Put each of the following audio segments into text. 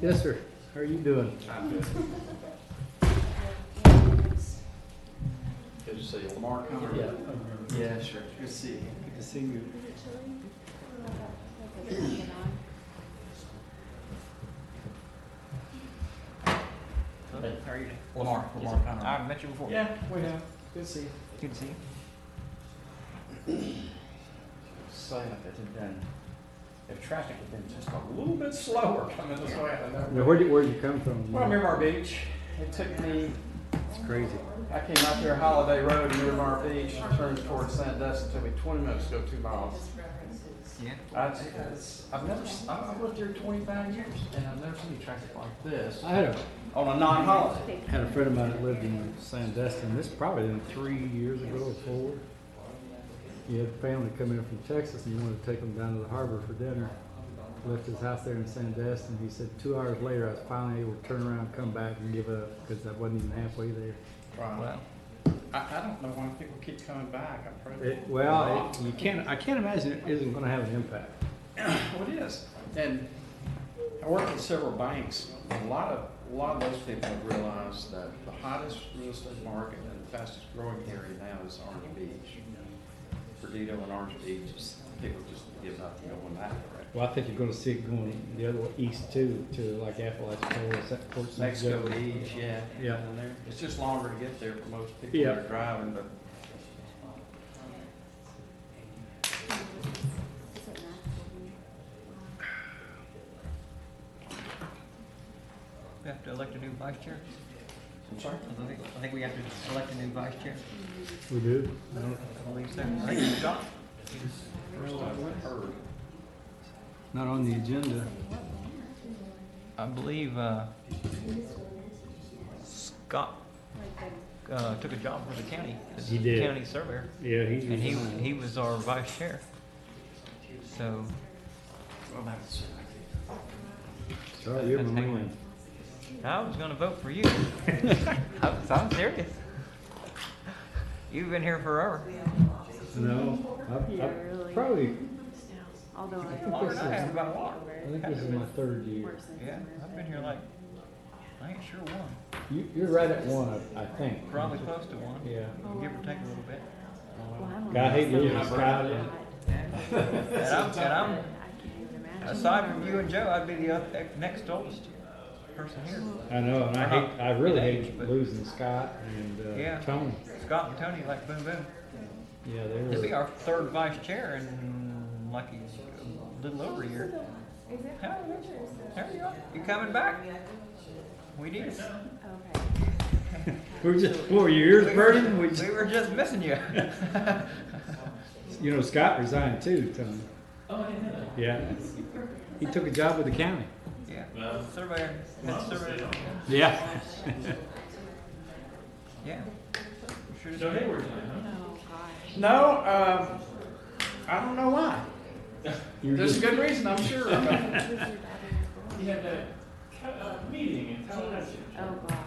Yes, sir. How are you doing? Good to see you. Lamar Conner. Yeah. Yeah, sure. Good to see you. Good to see you. How are you? Lamar, Lamar Conner. I've met you before. Yeah, we have. Good to see you. Good to see you. Say if it had been, if traffic had been just a little bit slower coming this way, I Now, know. where'd you, where'd you come from? Well, Miramar Beach, it took me, It's crazy. I came out there Holiday Road, Miramar Beach, and turned towards Sandusky. It took me twenty minutes to go two miles. Yeah. I, it's, I've never, s- I've I've lived here twenty-five years and I've never seen traffic like this I had a, on a non-holiday. had a friend of mine that lived in Sandestin. This probably been three years ago or four. He had family come in from Texas and he wanted to take them down to the harbor for dinner. Left his house there in Sandestin. He said two hours later, I was finally able to turn around, come back and give up because I wasn't even halfway there. Wow. I, I don't know why people keep coming back. I'm afraid. It, well, it, you can't, I can't imagine it isn't gonna have an impact. Well, it is. And I worked at several banks. A lot of, a lot of those people have realized that the hottest real estate market and the fastest growing area now is Orange Beach. Perdido and Orange Beach, people just give up and go in that direction. Well, I think you're gonna see it going the other way, east too, to like Appalachia, Fort Fort St. Mexico Joseph. Beach, yeah. Yeah. down there. It's just longer to get there for most people Yeah. that are driving, but We have to elect a new vice chair. I'm sorry. I think, I think we have to elect a new vice chair. We do? I don't- I believe so. I think it's John. First I went heard. Not on the agenda. I believe, uh, Scott, uh, took a job for the county. as He did. County surveyor, Yeah, he's. and he, he was our vice chair. So, Well, that's- Sorry, you're my Hang on. man. I was gonna vote for you. I was, I'm serious. You've been here forever. No, I, Yeah, I, really. probably, Although I. Longer than I have, about a lot. I think this is my third year. Yeah, I've been here like, I ain't sure one, You, you're right at one, I, I think. probably close to one, Yeah. give or take a little bit. God, hate you, Scott. And I'm, and I'm, aside from you and Joe, I'd be the other, next oldest person here. I know, and I hate, I really hate But- losing Scott and, uh, Yeah. Tony. Scott and Tony, like boom boom, Yeah, they to be were, our third vice chair in like a little over a year. How, there you are, you coming back? We need it. Okay. we were just, what were your ears burning? We just, We were just missing you. you know, Scott resigned too, Tony. Oh, I didn't know that. Yeah. He took a job with the county. Yeah, surveyor, head surveyor, Yeah. yeah. Sure as So heck. they were tonight, huh? Oh, gosh. No, um, I don't know why. You're There's just, a good reason, I'm sure. but- You had that ca- uh, meeting in Tallahatchie. Oh, gosh.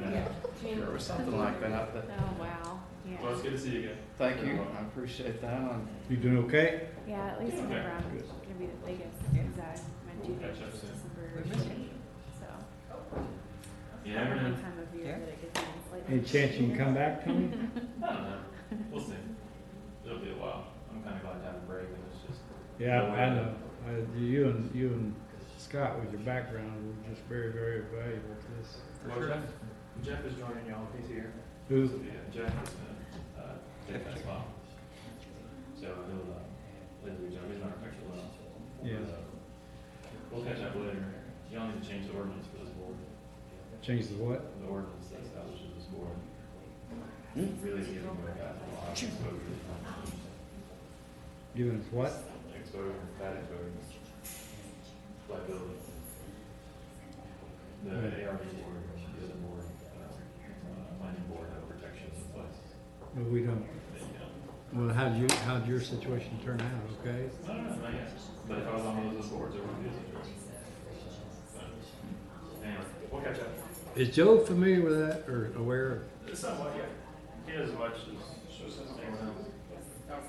Yeah. Sure, or something like that, but Oh, wow. Well, Yeah. it's good to see you again. thank you, I appreciate that, and you doing okay? Yeah, at least Okay. whenever I'm gonna be the biggest, Yeah. cause I, my due We'll date catch up is soon. December We miss you. eighth, so. You I never don't know know. what time of year Yeah. that it gets in, it's like- Any chance you can come back, Tony? I don't know. We'll see. It'll be a while. I'm kind of glad to have a break and it's just. Yeah, No way. I know. I- You and, you and Scott with your background were just very, very valuable to this. For Well, sure. Jeff, Jeff is joining y'all. He's here. Who's, Yeah, Jeff is gonna, uh, take that spot. So he'll, uh, Lindsay will join. He's not actually well. Yeah. But, uh, We'll catch up later. Y'all need to change the ordinance for this board. changed the what? The ordinance that establishes this board. Really giving you guys a lot of exposure. Giving us what? exposure, bad exposure, liability. The ARB board, the other board, uh, planning board have protections in place. But we don't. They don't. Well, how'd you, how'd your situation turn out, okay? I don't know, I guess, but if I was on one of those boards, it would be a situation. But, Anyway, we'll catch up. Is Joe familiar with that or aware? Somewhat, yeah. He doesn't watch this, shows us anyone else.